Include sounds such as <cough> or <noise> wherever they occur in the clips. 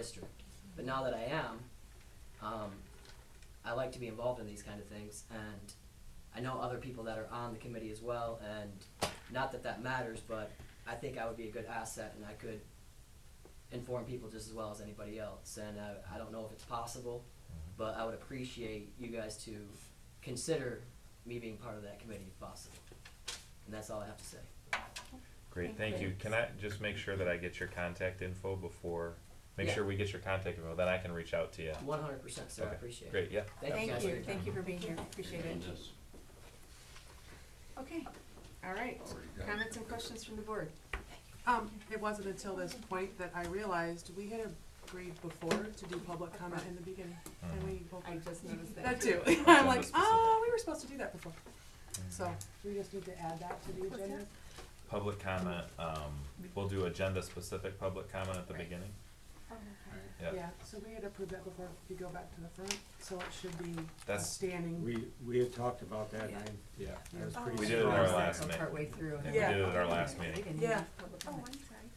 district. But now that I am, um, I like to be involved in these kind of things, and I know other people that are on the committee as well, and not that that matters, but I think I would be a good asset, and I could inform people just as well as anybody else. And I, I don't know if it's possible, Mm-hmm. but I would appreciate you guys to consider me being part of that committee if possible. And that's all I have to say. Great, Thank thank you. you. Can I just make sure that I get your contact info before, make Yeah. sure we get your contact info, then I can reach out to you. One hundred percent, sir, I Okay, appreciate it. Great, yeah. Thank you guys Thank for you, your time. thank you for being here, appreciate it. Okay, all right, comments and questions from the board? Um, it wasn't until this point that I realized we had agreed before to do public comment in the beginning, and we both. I just noticed <laughs> that. That too, I'm like, Agenda oh, we were supposed to do that before, Mm-hmm. so, we just need to add that to the What's agenda? Public comment, um, we'll do agenda-specific public comment at the Right. beginning, Oh, yeah. Yeah, so we had approved that before, if you go back to the front, so it should be a That's- standing, We, we had talked about that, and I, yeah, I was Yeah. pretty We did it in our surprised. last minute. Partway through. Yeah, we Yeah. did it at our last meeting. yeah. Oh,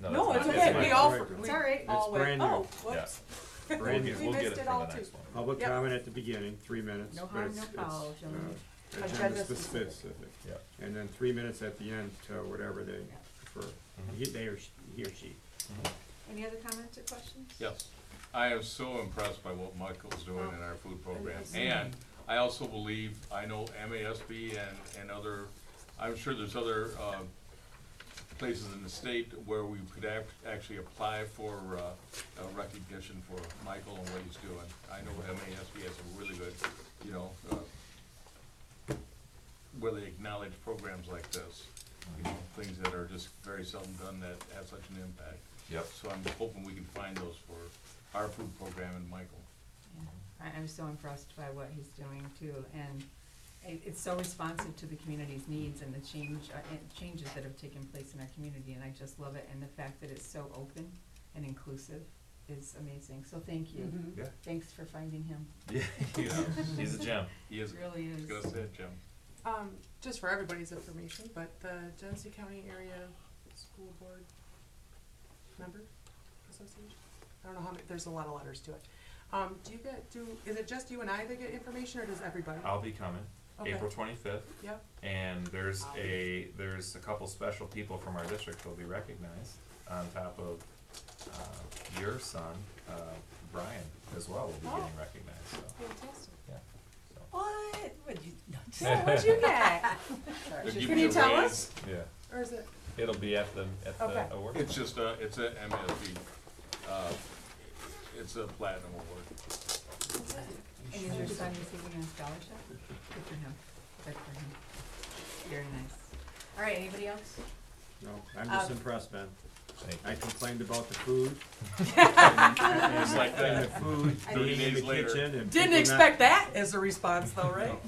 I'm No, that's not- it's okay, my we fault. all, Correct. we It's all right. all It's went, brand new. oh, Yeah. whoops. We'll Brand get, We new. we'll get missed it it for the all next too. one. Public Yep. comment at the beginning, three minutes, No harm, but it's, no it's, foul, gentlemen. uh, Agenda agenda specific. specific. Yep. And then three minutes at the end to whatever they prefer, Mhm. he, they or, sh- he or she. Any other comments or questions? Yes, I am so impressed by what Michael's doing in our food program, and I also believe, I know MASB and, and other, I'm sure there's other, uh, places in the state where we could act, actually apply for, uh, uh, recognition for Michael and what he's doing. I know MASB has a really good, you know, uh, where they acknowledge programs like this, you know, things that are just very seldom done that have such an impact. <laughs> Yep. So I'm hoping we can find those for our food program and Michael. Yeah. I, I'm so impressed by what he's doing too, and it, it's so responsive to the community's needs and the change, uh, and changes that have taken place in our community, and I just love it, and the fact that it's so open and inclusive is amazing, so thank you. Mhm. Yeah. Thanks for finding him, Yeah, you know, <laughs> he's a gem. He is, it really he's is. gonna say it, Jim. Um, just for everybody's information, but the Genesee County Area School Board Member Association? I don't know how many, there's a lot of letters to it. Um, do you get, do, is it just you and I that get information, or does everybody? Oh. I'll be coming, Okay. April twenty-fifth, Yep, and there's a, there's a couple special people from our district who'll be recognized on top of, uh, your son, uh, Brian as well will be Oh. getting recognized, so, fantastic. yeah, so. What, would you, <laughs> So what'd you get? <laughs> They'll give Can you a tell raise. us? Yeah, Or is it, it'll be at the, at Okay. the award. It's just a, it's a MSB, uh, it's a platinum award. And is your son receiving a scholarship? Good for him, good for him. Very nice. All right, anybody else? No, I'm just Um, impressed, man. Thank you. I complained about the food. and- and- Just like that. And the food I being in days the later. kitchen didn't and. people not- expect that as a response though, right?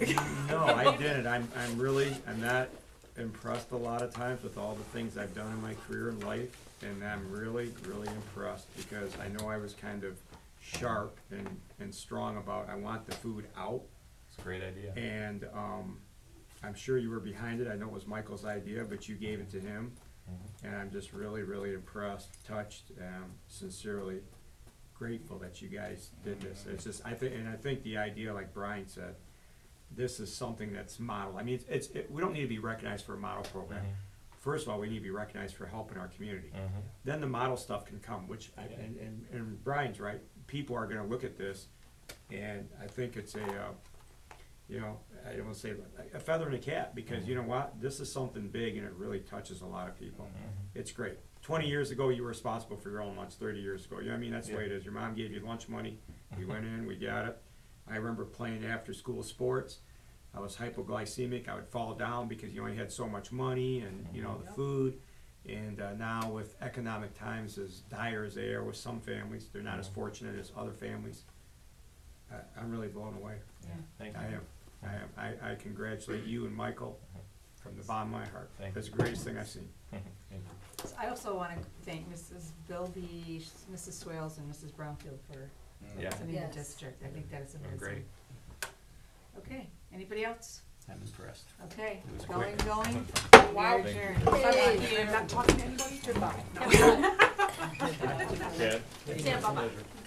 No, I didn't. I'm, I'm really, I'm not impressed a lot of times with all the things I've done in my career and life. And I'm really, really impressed because I know I was kind of sharp and, and strong about, I want the food out. It's a great idea. And, um, I'm sure you were behind it. I know it was Michael's idea, but you gave it to him. Mm-hmm. And I'm just really, really impressed, touched, um, sincerely grateful that you guys did this. It's just, I think, and I think the idea, like Brian said, this is something that's model. I mean, it's- it's, it, we don't need to be recognized for a model program. Mm-hmm. First of all, we need to be recognized for helping our community. Then the model stuff can come, which, I- Yeah. and, and, and Brian's right, people are gonna look at this, and I think it's a, uh, you know, I don't wanna say, a feather in a cap, because you know what? This is something big and it really touches a lot of Mm-hmm. people. It's great. Twenty years ago, you were responsible for your own lunch, thirty years ago, you know, what I mean, that's the way it is. Your mom gave you lunch money, we went in, we got it. I remember playing after-school sports. I was hypoglycemic. I would fall down because you only had so much money and, you know, Mm-hmm. the Yep. food. And uh, now with economic times as dire as they are with some families, they're Mm-hmm. not as fortunate as other families. I, I'm really blown away. Yeah. Thank I <laughs> you. am. I am. I, I congratulate you and Michael from the bottom of my heart. Mm-hmm. Thank That's you. the greatest thing I've seen. Thank you. So I also want to thank Mrs. Bilby, Mrs. Swales, and Mrs. Brownfield for Yeah. sending the Yes. district. I think that is Oh, amazing. great. Okay, anybody else? I'm impressed. Okay, It was going, quick. going. Wow. We are Thank adjourned. Thank I'm not talking to anybody, goodbye. you. Chad? Yeah, bye-bye.